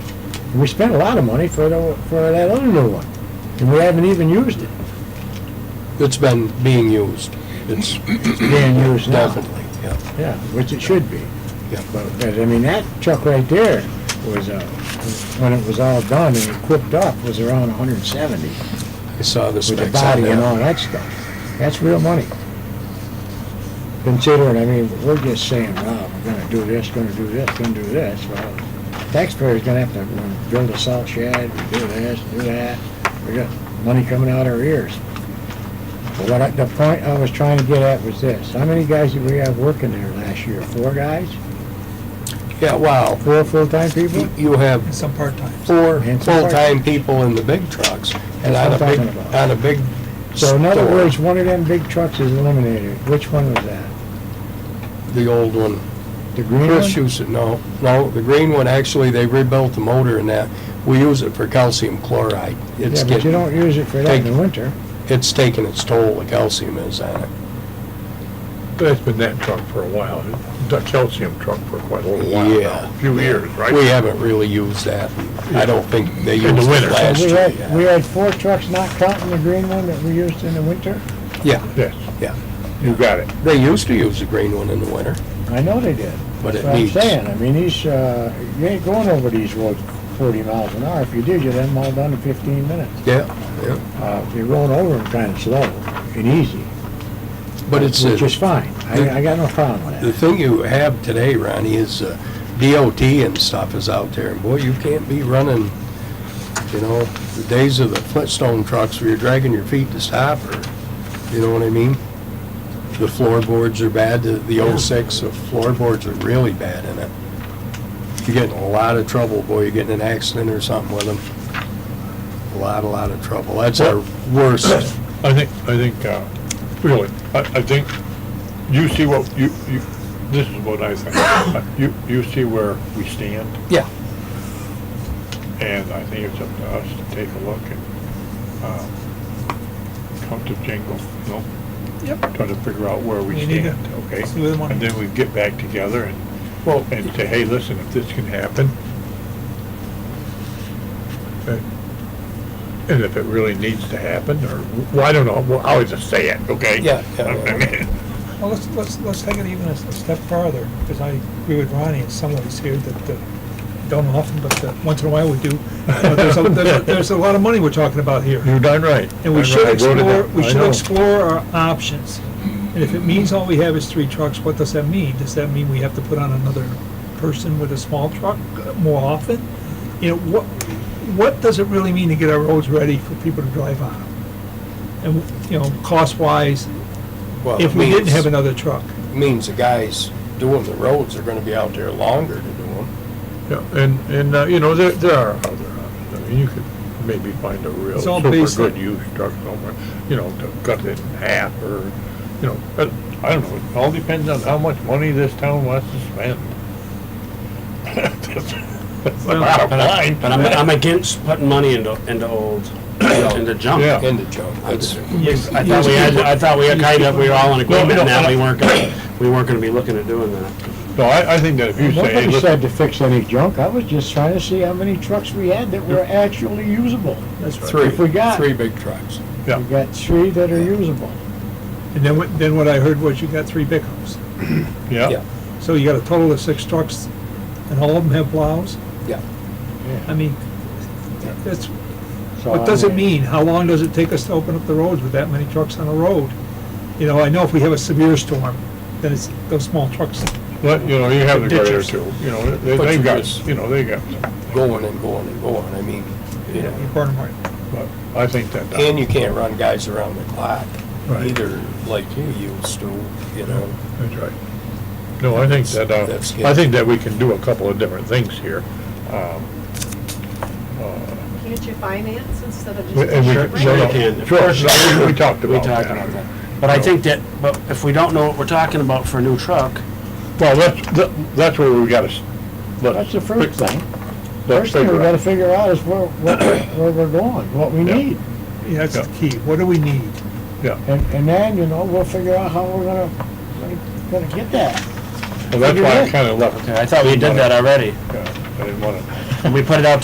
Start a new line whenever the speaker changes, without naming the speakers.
We spent a lot of money for the, for that other new one, and we haven't even used it,
It's been being used. It's
It's being used now.
definitely, yeah.
Yeah, which it should be.
Yeah.
But, but, I mean, that truck right there was, uh, when it was all done and equipped up, was around hundred and seventy,
I saw
with
the
the
specs on
body and all
that.
that stuff. That's real money. Considering, I mean, we're just saying, wow, we're gonna do this, gonna do this, gonna do this, well, taxpayers gonna have to you know, build a salt shed, do this, do that, we got money coming out our ears. But what I, the point I was trying to get at was this, how many guys did we have working there last year? Four guys?
Yeah, wow.
Four full-time people?
You- You have
and some part-times.
four
And some
full-time people in the big trucks. And on a
That's what I'm
big,
talking about.
on a big
So in other
store,
words, one of them big trucks is eliminated. Which one was that?
The old one.
The green
Chris
one?
used it, no, no, the green one, actually, they rebuilt the motor in that. We use it for calcium chloride. It's
Yeah, but you
getting,
don't use it for that in the
Take-
winter.
it's taking its toll, the calcium is on it.
That's been that truck for a while, the calcium truck for quite a little while
Yeah.
now, a few years, right?
We haven't really used that. I don't think they
In the
used it
winter.
last
We
year.
had, we had four trucks, not counting the green one that we used in the winter.
Yeah,
Yes,
yeah.
you got it.
They used to use the green one in the winter,
I know they did.
but
That's
it
what I'm
needs.
saying. I mean, these, uh, you ain't going over these roads forty miles an hour. If you did, you'd have them all done in fifteen minutes.
Yeah, yeah.
Uh, if you're going over them kind of slow and easy,
But it's,
which
uh,
is fine. I, I got no problem with
the
that.
thing you have today, Ronnie, is uh, DOT and stuff is out there. And boy, you can't be running, you know, the days of the Flintstone trucks where you're dragging your feet to stop or, you know what I mean? The floorboards are bad, the- the 06, the floorboards are really bad in it. You're getting a lot of trouble, boy, you're getting in an accident or something with them. A lot, a lot of trouble. That's our worst,
I think, I think, uh, really, I, I think, you see what, you, you, this is what I think. Uh, You, you see where we stand,
yeah,
and I think it's up to us to take a look and, uh, come to jingle, you know?
Yep.
Try to figure out where we
We need to
stand, okay?
see where the money
And then we get back together and, well, and say, hey, listen, if this can happen. okay? And if it really needs to happen, or, well, I don't know, well, I'll just say it, okay?
Yeah, yeah.
I mean,
Well, let's, let's, let's take it even a s- a step farther, because I agree with Ronnie in some ways here that, uh, don't often, but uh, once in a while we do. But There's a, there's a- there's a lot of money we're talking about here.
You're done right.
And we
Done
should
right. Mm-hmm. I voted
explore,
that.
we
I
should
know.
explore our options. And if it means all we have is three trucks, what does that mean? Does that mean we have to put on another person with a small truck more often? You know, what, what does it really mean to get our roads ready for people to drive on? And, you know, cost-wise,
well, it
if
Uh,
we didn't
means-
have another truck.
means the guys doing the roads are gonna be out there longer to do them.
Yeah, and, and, uh, you know, there, there are other options. I mean, you could maybe find a real
It's all
super
based
good
on-
used truck somewhere, you know, to cut it in half or, you know, but I don't know. It all depends on how much money this town wants to spend. That's the
Well,
bottom
But I-
line.
but I'm, I'm against putting money into, into old, into junk.
Yeah.
In the junk. That's-
I thought we had, I thought we had kind of, we were all in agreement
no,
on that,
I-
we weren't gonna, we weren't gonna be looking at doing that.
No, I, I think that if you say, hey,
Nobody
listen,
said to fix any junk. I was just trying to see how many trucks we had that were actually usable.
That's right.
Three,
If we got-
three big trucks.
We got three that are usable.
And then, what- then what I heard was you got three pickups.
yeah,
So you got a total of six trucks, and all of them have plows?
Yeah.
I mean, that's,
So, I
what does it
mean-
mean? How long does it take us to open up the roads with that many trucks on a road? You know, I know if we have a severe storm, then it's those small trucks.
but, you know, you have the grader
Ditches.
too, you know, they,
But
they've
you
got,
just-
you know, they got,
Going and going and going, I mean, you
You
know.
burn 'em right.
but I think that. uh,
And you can't run guys around the clock
Right.
either, like you used to, you know.
That's right. No, I think that, uh,
That's good.
I think that we can do a couple of different things here. Um, uh,
Can't you finance instead of
We-
just?
and we
taking it
Sure,
right?
no.
We can.
Sure, no, we- we talked
We
about
talked
that.
about that. But I think that, but if we don't know what we're talking about for a new truck,
Well, that's, that- that's where we gotta, s-
That's
let's,
the first thing.
let's
First thing we
figure
gotta
out.
figure out is where, what- where we're going, what we
Yeah.
need.
Yeah, that's the key. What do we need?
And, and then, you know, we'll figure out how we're gonna, gonna- gonna get that.
Well, that's why I kinda left.
I thought we did that already.
Yeah, I didn't wanna.
And we put it out